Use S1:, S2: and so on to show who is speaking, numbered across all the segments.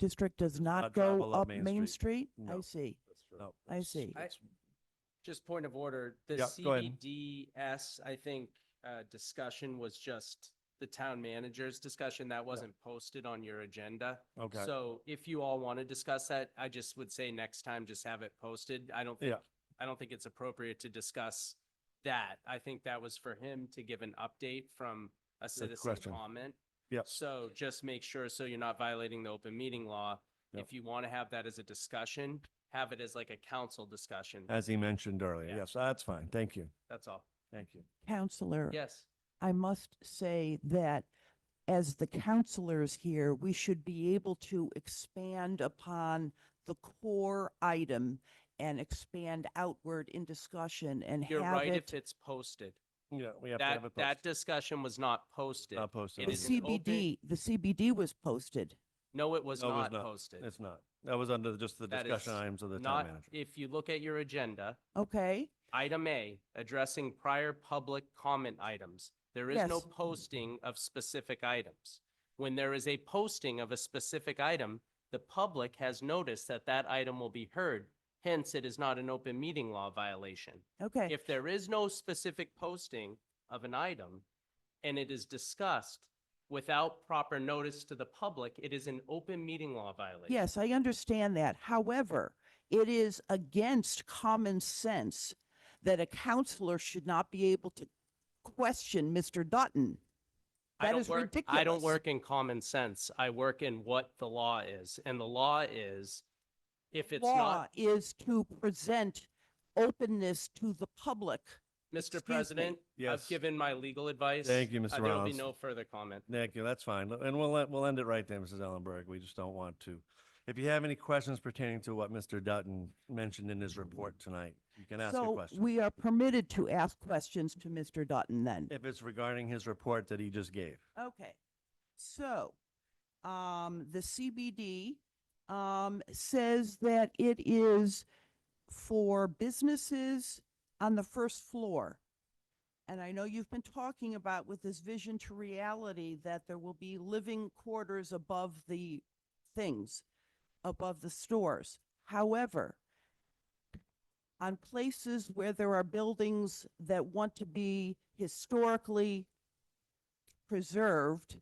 S1: district does not
S2: not travel
S1: go up Main Street? I
S2: No.
S1: see.
S2: No,
S1: I see.
S3: I- Just point of order, the
S2: Yeah, go ahead.
S3: CBDS, I think, uh, discussion was just the town manager's discussion. That wasn't posted on your agenda.
S2: Okay.
S3: So if you all want to discuss that, I just would say next time, just have it posted. I don't think,
S2: Yeah.
S3: I don't think it's appropriate to discuss that. I think that was for him to give an update from a citizen
S2: question.
S3: comment.
S2: Yep.
S3: So just make sure, so you're not violating the open meeting law.
S2: Yep.
S3: If you want to have that as a discussion, have it as like a council discussion.
S2: As he mentioned earlier.
S3: Yeah.
S2: Yes, that's fine. Thank you.
S3: That's all.
S2: Thank you.
S1: Counselor,
S3: Yes.
S1: I must say that as the counselors here, we should be able to expand upon the core item and expand outward in discussion and
S3: You're
S1: have
S3: right if
S1: it.
S3: it's posted.
S2: Yeah, we have to
S3: That,
S2: have it
S3: that
S2: posted.
S3: discussion was not posted.
S2: Not posted.
S3: it
S1: The
S3: is an
S2: on
S3: open-
S1: CBD, the CBD was posted.
S3: No, it was
S2: No, it was
S3: not
S2: not.
S3: posted.
S2: the- It's not. That was under just the
S3: That
S2: discussion
S3: is
S2: items of the town
S3: Not,
S2: manager.
S3: if you look at your agenda,
S1: Okay,
S3: item A, addressing prior public comment items. There is no
S1: Yes.
S3: posting of specific items. When there is a posting of a specific item, the public has noticed that that item will be heard. Hence, it is not an open meeting law violation.
S1: okay.
S3: If there is no specific posting of an item and it is discussed without proper notice to the public, it is an open meeting law violation.
S1: Yes, I understand that. However, it is against common sense that a counselor should not be able to question Mr. Dutton.
S3: I
S1: that
S3: don't
S1: is
S3: work- I
S1: ridiculous.
S3: don't work in common sense. I work in what the law is. And the law is, if it's
S1: Law
S3: not,
S1: is to present openness to the public.
S3: Mr.
S1: excuse me.
S3: President, I've
S2: Yes.
S3: given my legal advice.
S2: Thank you,
S3: Uh,
S2: Mr.
S3: There'll be
S2: Rollins.
S3: no further comment.
S2: Thank you. That's fine. And we'll, let- we'll end it right there, Mrs. Ellenberg. We just don't want to. If you have any questions pertaining to what Mr. Dutton mentioned in his report tonight, you can ask a
S1: So
S2: question.
S1: we are permitted to ask questions to Mr. Dutton then.
S2: If it's regarding his report that he just gave.
S1: Okay, so, um, the CBD, um, says that it is for businesses on the first floor. And I know you've been talking about with this vision to reality that there will be living quarters above the things, above the stores. However, on places where there are buildings that want to be historically preserved,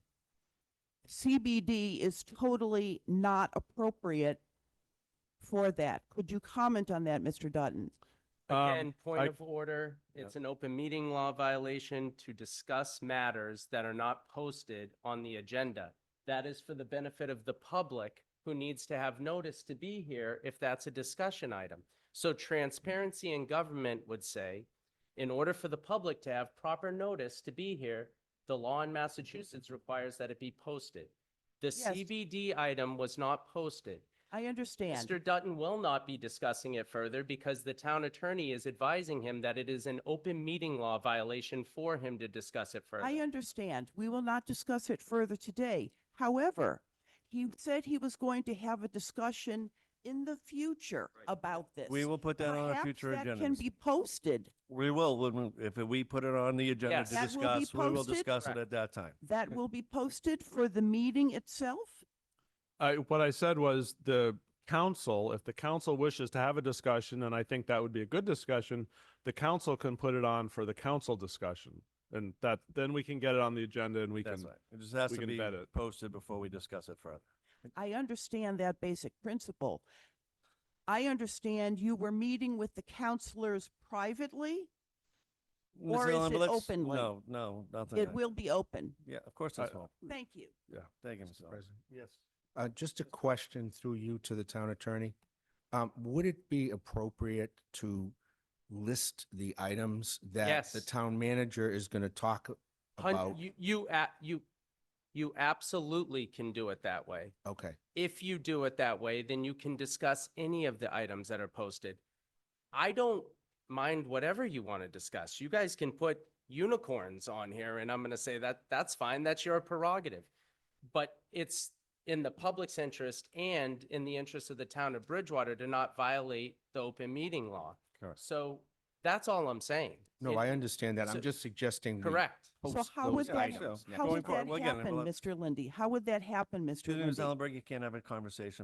S1: CBD is totally not appropriate for that. Could you comment on that, Mr. Dutton?
S2: Um,
S3: Again,
S2: I-
S3: point of order, it's an open meeting law violation to discuss matters that are not posted on the agenda. That is for the benefit of the public who needs to have notice to be here if that's a discussion item. So transparency in government would say, in order for the public to have proper notice to be here, the law in Massachusetts requires that it be posted. The
S1: Yes.
S3: CBD item was not posted.
S1: I understand.
S3: Mr. Dutton will not be discussing it further because the town attorney is advising him that it is an open meeting law violation for him to discuss it
S1: I
S3: further.
S1: understand. We will not discuss it further today. However, he said he was going to have a discussion in the future about this.
S2: Um, We will put that on our
S1: Perhaps
S2: future
S1: That can
S2: agenda.
S1: be posted.
S2: We will, when we- if we put it on the agenda
S3: Yes.
S2: to
S1: That will be
S2: discuss, we will
S1: posted?
S2: discuss it
S3: Correct.
S2: at that time.
S1: That will be posted for the meeting itself?
S4: I, what I said was the council, if the council wishes to have a discussion, and I think that would be a good discussion, the council can put it on for the council discussion. And that, then we can get it on the agenda and we
S2: That's
S4: can,
S2: right. It just has
S4: we
S2: to
S4: can
S2: be
S4: vet it.
S2: posted before we discuss it further.
S1: I understand that basic principle. I understand you were meeting with the counselors privately? Or
S2: Mrs.
S1: is
S2: Allen, but
S1: it
S2: let's-
S1: openly?
S2: No, no, nothing.
S1: It
S2: like-
S1: will be open.
S2: Yeah, of course it's
S4: I-
S2: will.
S1: Thank you.
S2: Thank you,
S5: Mr.
S2: Mrs. Allen.
S5: President.
S2: Yes.
S5: Uh, just a question through you to the town attorney. Um, would it be appropriate to list the items that the
S3: Yes.
S5: town manager is gonna talk
S3: Hun-
S5: about?
S3: You, you, a- you, you absolutely can do it that way.
S5: Okay,
S3: If you do it that way, then you can discuss any of the items that are posted. I don't mind whatever you want to discuss. You guys can put unicorns on here and I'm going to say that, that's fine. That's your prerogative. But it's in the public's interest and in the interest of the town of Bridgewater to not violate the open meeting law.
S2: Correct.
S3: So That's all I'm saying.
S5: No,
S3: It-
S5: I understand that.
S3: so-
S5: I'm just suggesting. we
S3: Correct.
S1: So
S5: post
S1: how
S5: those
S1: would that,
S5: items next
S1: how
S5: time.
S1: would that
S2: forward, well, again,
S1: happen,
S2: we'll have-
S1: Mr. Lindy? How would that happen, Mr.
S2: Mr.
S1: Lindy?
S2: Zellenberg, you can't have a conversation